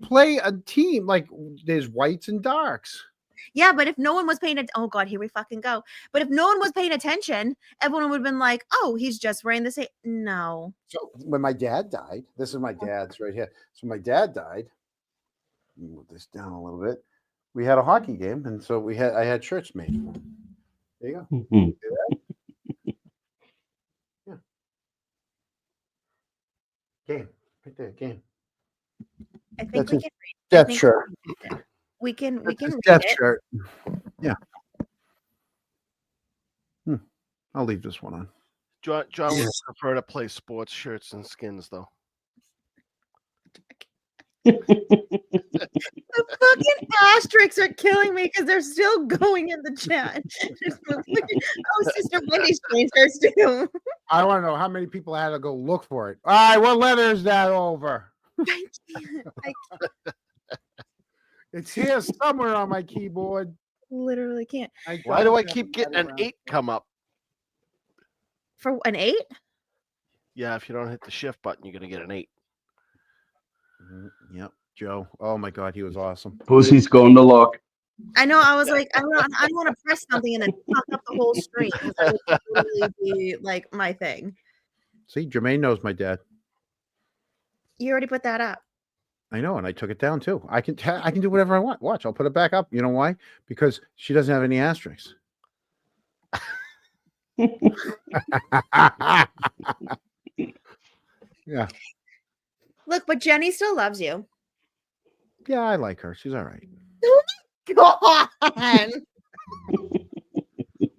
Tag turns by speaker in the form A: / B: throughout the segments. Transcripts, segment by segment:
A: play a team like there's whites and darks.
B: Yeah, but if no one was paying, at- oh god, here we fucking go. But if no one was paying attention, everyone would have been like, "Oh, he's just wearing the same." No,
A: So when my dad died, this is my dad's right here. So my dad died. Let me Move this down a little bit. We had a hockey game, and so we had I had shirts made for him. There you go.
C: Hmm.
A: Game right there. Game.
B: I think
A: That's
B: we
A: his
B: can. I
A: Death
B: think
A: shirt.
B: We can. We
A: That's
B: can.
A: his
B: read
A: death
B: it.
A: shirt. Yeah. Hmm. I'll leave this one on.
D: John, John would
A: Yes.
D: prefer to play sports shirts and skins, though.
B: The fucking asterisks are killing me because they're still going in the chat. oh, sister Wendy's changed hers too.
A: I want to know how many people had to go look for it. All right, what letter is that over?
B: I can't. I
A: It's here somewhere on my keyboard.
B: literally can't.
D: Why do I
A: don't
D: keep
A: have
D: getting
A: that
D: an
A: around.
D: eight come up?
B: For an eight?
D: Yeah, if you don't hit the shift button, you're gonna get an eight.
A: Mhm. Yep, Joe. Oh my God, he was awesome.
C: Pussy's going to lock.
B: I know. I was like, I want, I want to press something and then fuck up the whole screen. That would totally be like my thing.
A: See, Jermaine knows my dad.
B: You already put that up.
A: I know, and I took it down too. I can ta- I can do whatever I want. Watch, I'll put it back up. You know why? Because she doesn't have any asterisks. yeah,
B: Look, but Jenny still loves you.
A: yeah, I like her. She's all right.
B: Oh Go on.
A: I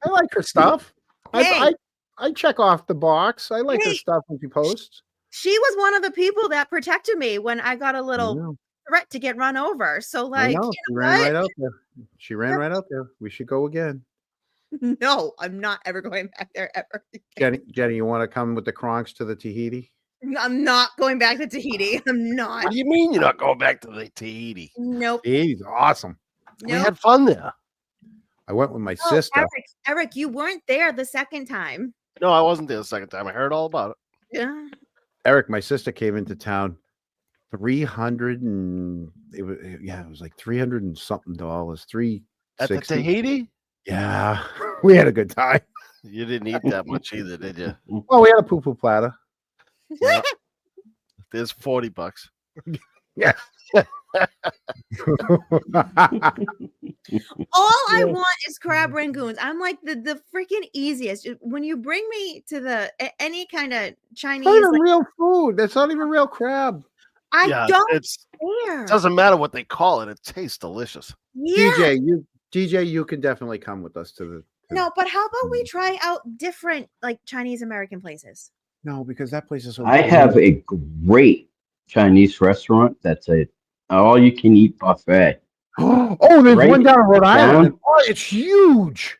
A: like her stuff.
B: Hey.
A: I, I I check off the box. I like her
B: Hey.
A: stuff when she posts.
B: She was one of the people that protected me when I got a
A: I
B: little
A: know,
B: threat to get run over. So,
A: I
B: like,
A: know. She ran right out there. She ran right out there. We should go again.
B: no, I'm not ever going back there ever.
A: Jenny, Jenny, you want to come with the Kronks to the Tahiti?
B: I'm not going back to Tahiti. I'm
D: What
B: not.
D: do you mean you're not going back to the Tahiti?
B: Nope.
A: Tahiti's awesome.
D: We
B: Nope.
D: had fun there.
A: I went with my
B: No,
A: sister.
B: Eric, Eric, you weren't there the second time.
D: No, I wasn't there the second time. I heard all about it.
B: Yeah.
A: Eric, my sister came into town. Three hundred and it was yeah, it was like three hundred and something dollars. Three
D: At
A: sixty.
D: the Tahiti,
A: Yeah, we had a good time.
D: you didn't eat that much either, did you?
A: Well, we had a poo poo platter.
D: Yeah. There's forty bucks.
B: All I want is crab
D: Mm-hmm.
B: rangoons. I'm like the the freaking easiest. It- When you bring me to the a- any kind of Chinese,
A: not even
B: like,
A: real food. That's not even real crab.
B: I
D: yeah,
B: don't
D: it's
B: care.
D: doesn't matter what they call it. It tastes delicious.
B: yeah.
A: DJ, you DJ, you can definitely come with us to the
B: No, but how about
D: Mm-hmm.
B: we try out different like Chinese American places?
A: no because that place is so.
C: I
A: big.
C: have a great Chinese restaurant that's a all you can eat buffet
A: oh, there's
C: Right
A: one down in Rhode Island.
C: down.
A: Oh, it's huge.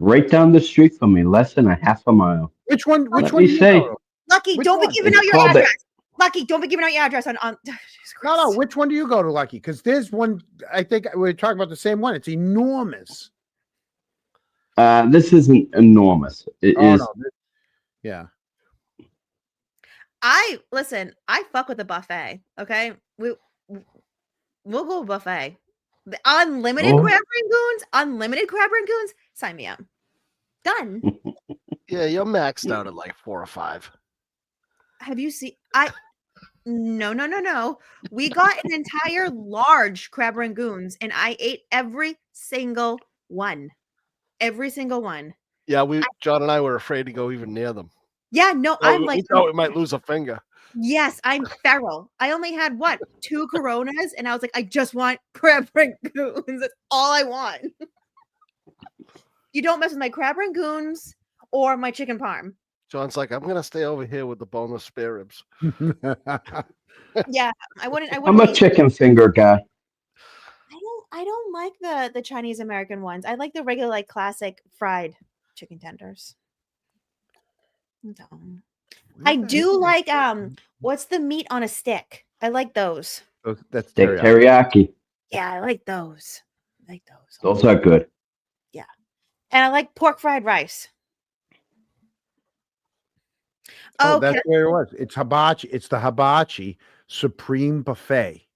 C: right down the street from me, less than a half a mile.
A: Which one? Which
C: Let
A: one?
C: me
A: do you
C: say-
A: go to?
B: Lucky,
A: Which
B: don't
A: one?
B: be giving
C: It's
B: out your
C: called the-
B: address. Lucky, don't be giving out your address on on. Jesus
A: No, no.
B: Christ.
A: Which one do you go to, Lucky? Because there's one. I think we're talking about the same one. It's enormous.
C: Uh, this isn't enormous. It is
A: Oh, no, th- Yeah.
B: I listen. I fuck with the buffet. Okay, we w- we'll go buffet. The unlimited
C: Oh.
B: crab rangoons, unlimited crab rangoons. Sign me up. Done.
C: Mm.
D: Yeah, you're maxed out at like four or five.
B: Have you seen? I no no no no. We got an entire large crab rangoons, and I ate every single one. Every single one.
D: Yeah, we John and I were afraid to go even near them.
B: Yeah, no,
D: Oh,
B: I'm
D: we-
B: like,
D: we thought we might lose a finger.
B: yes, I'm feral. I only had what two coronas, and I was like, I just want crab rangoons. That's all I want. you don't mess with my crab rangoons or my chicken parm.
D: John's like, I'm gonna stay over here with the boneless spare ribs.
B: Yeah, I wouldn't. I wouldn't.
C: I'm a
B: eat-
C: chicken finger guy.
B: I don't I don't like the the Chinese American ones. I like the regular like classic fried chicken tenders. No. I do like um what's the meat on a stick? I like those.
A: Oh, That's
C: Steak
A: teriyaki.
C: teriyaki.
B: Yeah, I like those. I like those. a
C: Those
B: lot.
C: are good.
B: And I like pork fried rice.
A: Oh,
B: okay. Oh,
A: that's where it was. It's hibachi. It's the hibachi supreme buffet.